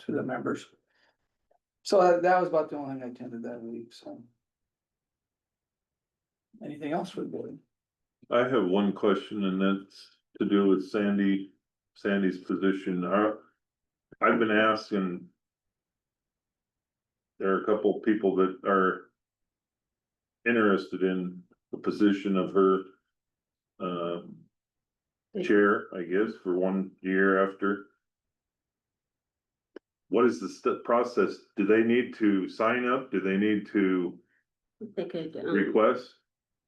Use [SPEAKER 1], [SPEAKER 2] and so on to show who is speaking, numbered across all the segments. [SPEAKER 1] to the members. So that- that was about the only thing I attended that week, so. Anything else for the board?
[SPEAKER 2] I have one question and that's to do with Sandy, Sandy's position. Are- I've been asking. There are a couple people that are. Interested in the position of her. Um. Chair, I guess, for one year after. What is the step process? Do they need to sign up? Do they need to
[SPEAKER 3] They could um,
[SPEAKER 2] request?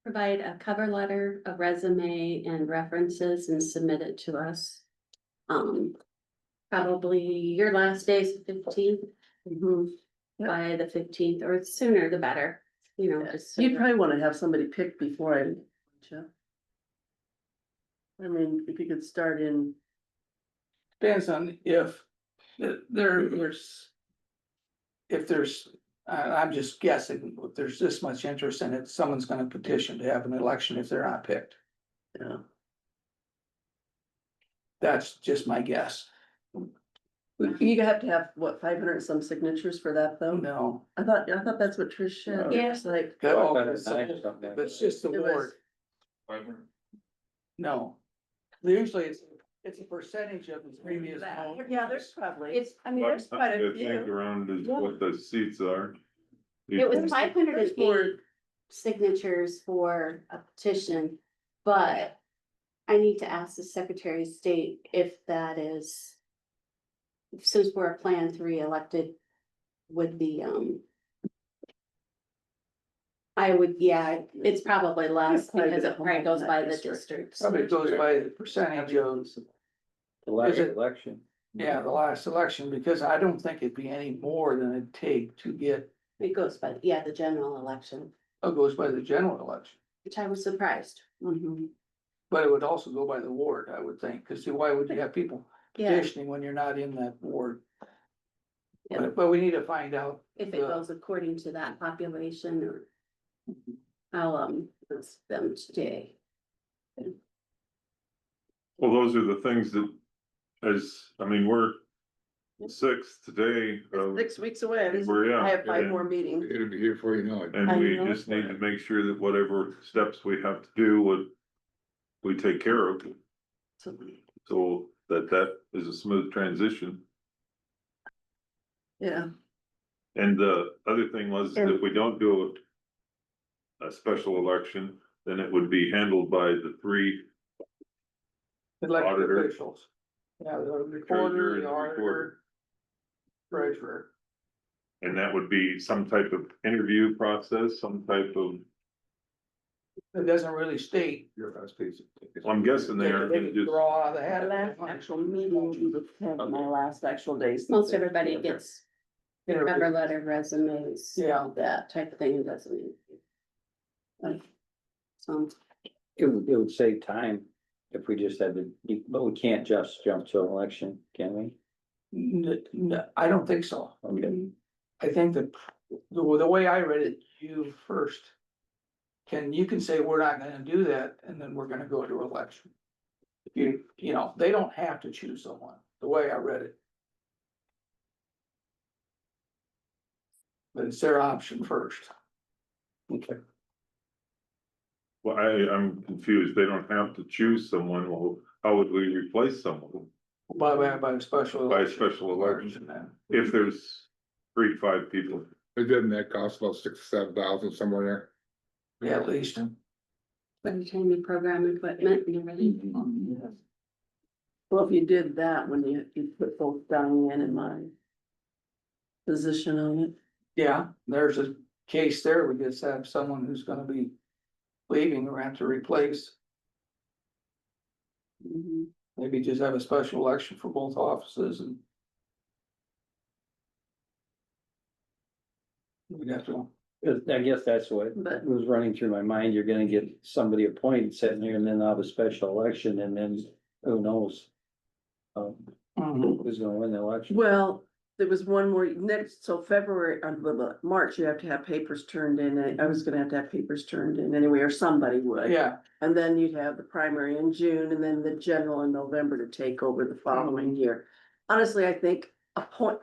[SPEAKER 3] provide a cover letter, a resume and references and submit it to us. Um, probably your last day is fifteenth.
[SPEAKER 4] Mm-hmm. Yeah.
[SPEAKER 3] By the fifteenth or sooner the better, you know, just. so
[SPEAKER 4] You'd
[SPEAKER 3] that-
[SPEAKER 4] probably wanna have somebody picked before I, leave, wouldn't you? I mean, if you could start in,
[SPEAKER 1] Depends on if th- there, there's. If there's, I, I'm just guessing, if there's this much interest in it, someone's gonna petition to have an election if they're not picked.
[SPEAKER 4] you know,
[SPEAKER 1] That's just my guess. Hmm.
[SPEAKER 4] you have to have, what, five hundred and some signatures for that though?
[SPEAKER 1] No,
[SPEAKER 4] I thought, I thought that's what Trish said,
[SPEAKER 3] Yeah.
[SPEAKER 4] it's like,
[SPEAKER 1] that all-
[SPEAKER 5] Five hundred and nine or something.
[SPEAKER 1] that's just the
[SPEAKER 4] It was-
[SPEAKER 1] ward, no. Usually it's, it's a percentage of the previous. vote.
[SPEAKER 4] yeah, there's probably.
[SPEAKER 3] It's, I mean,
[SPEAKER 2] I
[SPEAKER 3] there's quite a
[SPEAKER 2] think
[SPEAKER 3] few.
[SPEAKER 2] around is what the seats are.
[SPEAKER 3] It was
[SPEAKER 4] There's the
[SPEAKER 3] five hundred and
[SPEAKER 4] first
[SPEAKER 3] eight
[SPEAKER 4] board.
[SPEAKER 3] signatures for a petition, but. I need to ask the Secretary of State if that is. Since we're a Plan Three elected, would be, um. I would, yeah, it's probably less
[SPEAKER 4] Probably
[SPEAKER 3] because
[SPEAKER 4] the
[SPEAKER 3] it probably goes by the
[SPEAKER 4] district.
[SPEAKER 3] districts.
[SPEAKER 1] Probably goes by the percentage of,
[SPEAKER 5] The last
[SPEAKER 1] Is it-
[SPEAKER 5] election.
[SPEAKER 1] yeah, the last election, because I don't think it'd be any more than it'd take to get, oh,
[SPEAKER 3] It goes by, yeah, the general election,
[SPEAKER 1] it goes by the general election.
[SPEAKER 3] which I was surprised.
[SPEAKER 4] Mm-hmm.
[SPEAKER 3] Mhm.
[SPEAKER 1] But it would also go by the ward, I would think, because why would you have people
[SPEAKER 3] Yeah,
[SPEAKER 1] petitioning when you're not in that ward?
[SPEAKER 3] Yeah.
[SPEAKER 1] But, but we need to find out,
[SPEAKER 3] if it goes according to that population or. I'll, um, ask them today.
[SPEAKER 2] Well, those are the things that, as, I mean, we're six today.
[SPEAKER 4] It's
[SPEAKER 2] uh,
[SPEAKER 4] Six weeks away, This-
[SPEAKER 2] We're, yeah.
[SPEAKER 4] I have five
[SPEAKER 2] and-
[SPEAKER 4] more meetings.
[SPEAKER 6] It'll be here before you know it.
[SPEAKER 2] And
[SPEAKER 4] I
[SPEAKER 2] we
[SPEAKER 4] know.
[SPEAKER 2] just need to make sure that whatever steps we have to do would, we take care of, so that that is a smooth transition.
[SPEAKER 4] Yeah,
[SPEAKER 2] And the other thing was, that if we don't do a a special election, then it would be handled by the three
[SPEAKER 1] elected
[SPEAKER 2] Auditor.
[SPEAKER 1] officials. Yeah, the recorder,
[SPEAKER 2] Treasurer and
[SPEAKER 1] the
[SPEAKER 2] the
[SPEAKER 1] auditor,
[SPEAKER 2] recorder.
[SPEAKER 1] treasurer.
[SPEAKER 2] And that would be some type of interview process, some type of,
[SPEAKER 1] It doesn't really state,
[SPEAKER 6] Your last piece.
[SPEAKER 2] I'm guessing they
[SPEAKER 1] they
[SPEAKER 2] are gonna
[SPEAKER 1] can
[SPEAKER 2] just.
[SPEAKER 1] draw out of the
[SPEAKER 4] I
[SPEAKER 1] hat.
[SPEAKER 4] had a
[SPEAKER 1] if they
[SPEAKER 4] last
[SPEAKER 1] want.
[SPEAKER 4] actual meeting, was the 10th, my last actual days.
[SPEAKER 3] Most everybody gets cover
[SPEAKER 1] Interview.
[SPEAKER 3] letter resumes.
[SPEAKER 1] Yeah.
[SPEAKER 3] That type of thing, doesn't it? So,
[SPEAKER 5] It would, it would save time if we just had to, but we can't just jump to an election, can we?
[SPEAKER 1] N- n- I don't think so.
[SPEAKER 5] Okay,
[SPEAKER 1] I think that the, the way I read it, you first. Can, you can say, we're not gonna do that, and then we're gonna go to election. You, you know, they don't have to choose someone, the way I read it. But it's their option first.
[SPEAKER 5] okay.
[SPEAKER 2] Well, I, I'm confused. They don't have to choose someone. Well, how would we replace someone?
[SPEAKER 1] By, by, by a special.
[SPEAKER 2] By a
[SPEAKER 1] election.
[SPEAKER 2] special election.
[SPEAKER 1] Then.
[SPEAKER 2] If there's three, five people,
[SPEAKER 6] It doesn't that cost about six, seven thousand somewhere there?
[SPEAKER 1] Yeah, at least.
[SPEAKER 3] by the time you program equipment, you're ready.
[SPEAKER 4] Well, if you did that, when you, you put both Diane and my position on it,
[SPEAKER 1] Yeah, there's a case there, we just have someone who's gonna be leaving, we're gonna have to replace.
[SPEAKER 4] Mm-hmm.
[SPEAKER 3] Mhm.
[SPEAKER 1] Maybe just have a special election for both offices and. We'd have to,
[SPEAKER 5] 'Cause I guess that's what
[SPEAKER 4] but
[SPEAKER 5] was running through my mind. You're gonna get somebody appointed sitting there and then have a special election and then who knows? Um, who's gonna win the election?
[SPEAKER 4] Well, there was one more, next, so February, uh, blah, blah, March, you have to have papers turned in, and I was gonna have to have papers turned in anyway, or somebody would.
[SPEAKER 1] yeah,
[SPEAKER 4] And then you'd have the primary in June, and then the general in November to take over the following year. Honestly, I think appoint,